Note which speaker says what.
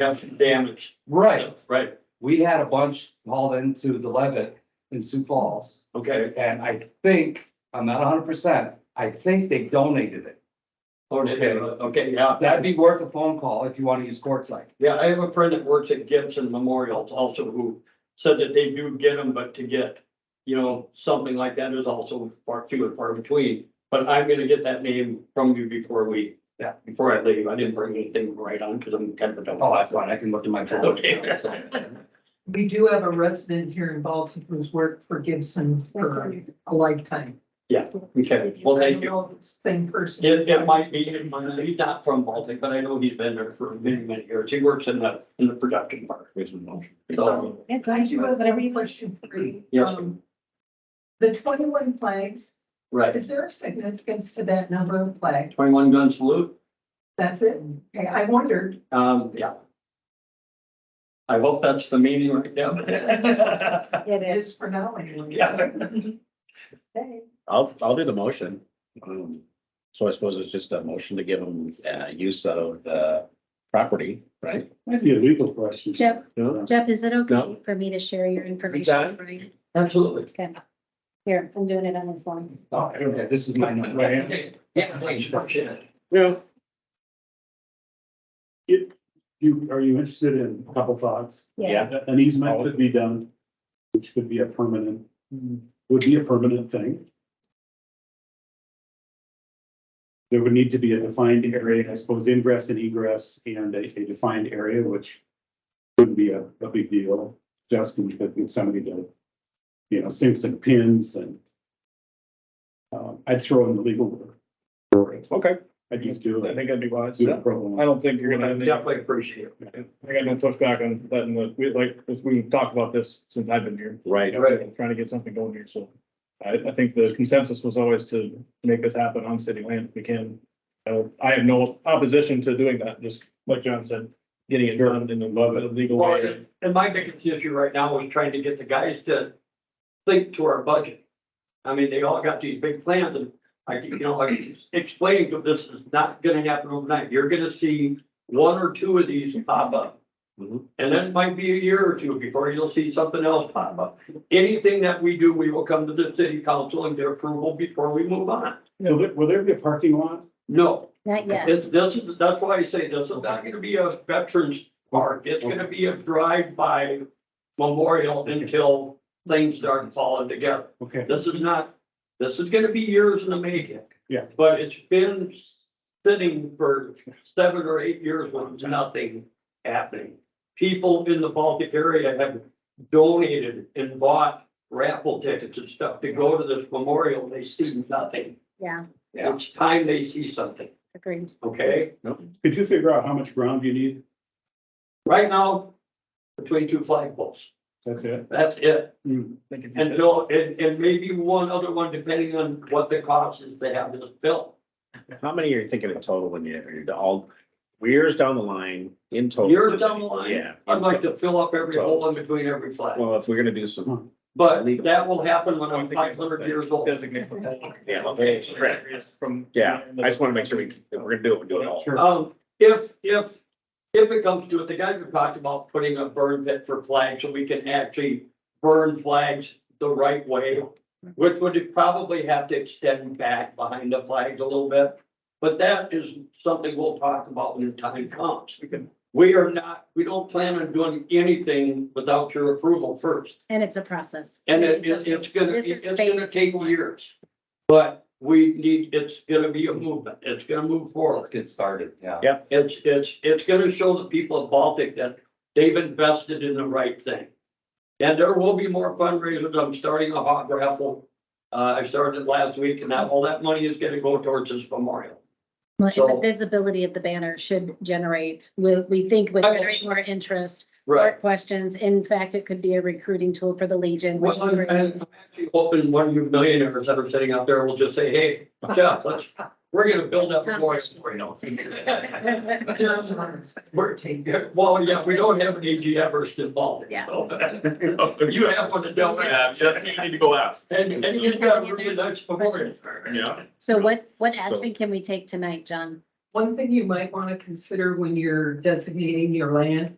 Speaker 1: have some damage.
Speaker 2: Right,
Speaker 1: Right,
Speaker 2: we had a bunch hauled into the Levitt in Sioux Falls,
Speaker 1: okay,
Speaker 2: and I think, I'm not hundred percent, I think they donated it.
Speaker 1: okay, okay, yeah.
Speaker 2: That'd be worth a phone call if you want to use quartzite.
Speaker 1: Yeah, I have a friend that works at Gibson Memorial also who said that they do get them, but to get, you know, something like that is also far few and far between. But I'm gonna get that name from you before we,
Speaker 2: Yeah.
Speaker 1: before I leave. I didn't bring anything right on because I'm kind of a dumb.
Speaker 2: Oh, that's fine, I can look at my phone.
Speaker 1: Okay.
Speaker 3: We do have a resident here in Baltimore who's worked for Gibson for a lifetime.
Speaker 1: Okay, well, thank
Speaker 3: I
Speaker 1: you.
Speaker 3: don't know if it's the Same person.
Speaker 1: It, it might be, it might be not from Baltic, but I know he's been there for many, many years. He works in the, in the production part. So,
Speaker 3: I do have a question for you.
Speaker 1: Yes.
Speaker 3: Um, The twenty-one flags,
Speaker 1: right,
Speaker 3: is there a significance to that number of flags?
Speaker 1: twenty-one gun salute.
Speaker 3: That's it? Okay, I wondered.
Speaker 1: Um, yeah. I hope that's the meaning right now.
Speaker 4: It is.
Speaker 3: Just for now anyway.
Speaker 1: Yeah.
Speaker 5: I'll, I'll do the motion. Um, so I suppose it's just a motion to give them, uh, use of the property, right?
Speaker 6: Might be a legal question.
Speaker 4: Jeff,
Speaker 5: No.
Speaker 4: Jeff, is it okay
Speaker 5: No.
Speaker 4: for me to share your information?
Speaker 5: got
Speaker 4: Right.
Speaker 1: Absolutely.
Speaker 4: Okay. Here, I'm doing it on the phone.
Speaker 2: Oh, yeah, this is my number.
Speaker 1: Okay. Yeah, thanks. Appreciate it.
Speaker 6: Yeah. It, you, are you interested in a couple thoughts?
Speaker 4: Yeah.
Speaker 6: An easement could be done, which could be a permanent,
Speaker 7: Hmm.
Speaker 6: would be a permanent thing. There would need to be a defined area, I suppose ingress and egress and a a defined area, which wouldn't be a, a big deal. Justin could get somebody to, you know, sinks and pins and um, I'd throw in the legal word for it.
Speaker 7: Okay,
Speaker 6: I just do
Speaker 7: I
Speaker 6: it.
Speaker 7: think that'd be wise.
Speaker 6: Do the
Speaker 7: I
Speaker 6: program.
Speaker 7: don't think you're gonna,
Speaker 1: I
Speaker 7: have any- I
Speaker 1: Definitely appreciate it.
Speaker 7: got no pushback on letting the, we like, this, we talked about this since I've been here.
Speaker 5: Right.
Speaker 1: Right.
Speaker 7: Trying to get something going here, so I, I think the consensus was always to make this happen on city land if we can. Uh, I have no opposition to doing that, just like John said, getting it done in a legal
Speaker 1: Well,
Speaker 7: way.
Speaker 1: and- and my biggest issue right now is trying to get the guys to think to our budget. I mean, they all got these big plans and I, keep, you know, I keep explaining to them, this is not gonna happen overnight. You're gonna see one or two of these pop up.
Speaker 5: Mhm.
Speaker 1: And then it might be a year or two before you'll see something else pop up. Anything that we do, we will come to the city council and get approval before we move on.
Speaker 6: Will there, will there be a parking lot?
Speaker 1: No,
Speaker 4: Not yet.
Speaker 1: this, this is, that's why I say this is not gonna be a veterans park. It's gonna be a drive-by memorial until things start falling together.
Speaker 6: Okay,
Speaker 1: This is not, this is gonna be years in the making.
Speaker 6: Yeah.
Speaker 1: But it's been sitting for seven or eight years with nothing happening. People in the Baltic area have donated and bought raffle tickets and stuff to go to this memorial. They see nothing.
Speaker 4: Yeah,
Speaker 1: It's time they see something,
Speaker 4: agreed.
Speaker 1: okay?
Speaker 6: could you figure out how much ground you need?
Speaker 1: Right now, between two flagpoles,
Speaker 6: That's it.
Speaker 1: that's it.
Speaker 7: Think it'd be-
Speaker 1: And no, and, and maybe one other one, depending on what the cost is to have this built.
Speaker 5: How many are you thinking in total when you, are all, years down the line in total?
Speaker 1: Years down the line,
Speaker 5: Yeah.
Speaker 1: I'd like to fill up every hole in between every flag,
Speaker 5: Well, if we're gonna do some.
Speaker 1: but that will happen when
Speaker 7: I
Speaker 1: I'm
Speaker 7: think it's-
Speaker 1: five hundred years old.
Speaker 7: Designate.
Speaker 5: Yeah, okay, correct.
Speaker 7: Areas From.
Speaker 5: Yeah, I just wanna make sure we, if we're gonna do it, we do it all.
Speaker 6: Sure.
Speaker 1: Um, if, if, if it comes to it, the guys who talked about putting a burn pit for flags, so we can actually burn flags the right way, which would probably have to extend back behind the flags a little bit. But that is something we'll talk about when the time comes. We are not, we don't plan on doing anything without your approval first.
Speaker 4: And it's a process.
Speaker 1: And it, it- it's gonna,
Speaker 4: This
Speaker 1: it's gonna
Speaker 4: is phase
Speaker 1: take
Speaker 4: one.
Speaker 1: years. But we need, it's gonna be a movement. It's gonna move forward.
Speaker 2: Let's get started, yeah.
Speaker 1: It's, it's, it's gonna show the people of Baltic that they've invested in the right thing. And there will be more fundraisers. I'm starting a hot raffle. Uh, I started it last week and now all that money is gonna go towards this memorial.
Speaker 4: Well, and
Speaker 1: So-
Speaker 4: The visibility of the banner should generate, we, we think would
Speaker 1: Okay.
Speaker 4: generate more interest, more questions. In fact, it could be a recruiting tool for the Legion. which
Speaker 1: Well, I'm,
Speaker 4: is
Speaker 1: I'm
Speaker 4: great.
Speaker 1: actually hoping one of you millionaires that are sitting out there will just say, hey, Jeff, let's, we're gonna build up a voice for you. We're- Well, yeah, we don't have an AG Everest involved.
Speaker 4: Yeah.
Speaker 1: so. If you have one that don't have,
Speaker 5: you need to go out.
Speaker 1: and, and you've got a really nice memorial.
Speaker 5: Yeah.
Speaker 4: So what, what action can we take tonight, John?
Speaker 3: One thing you might want to consider when you're designating your land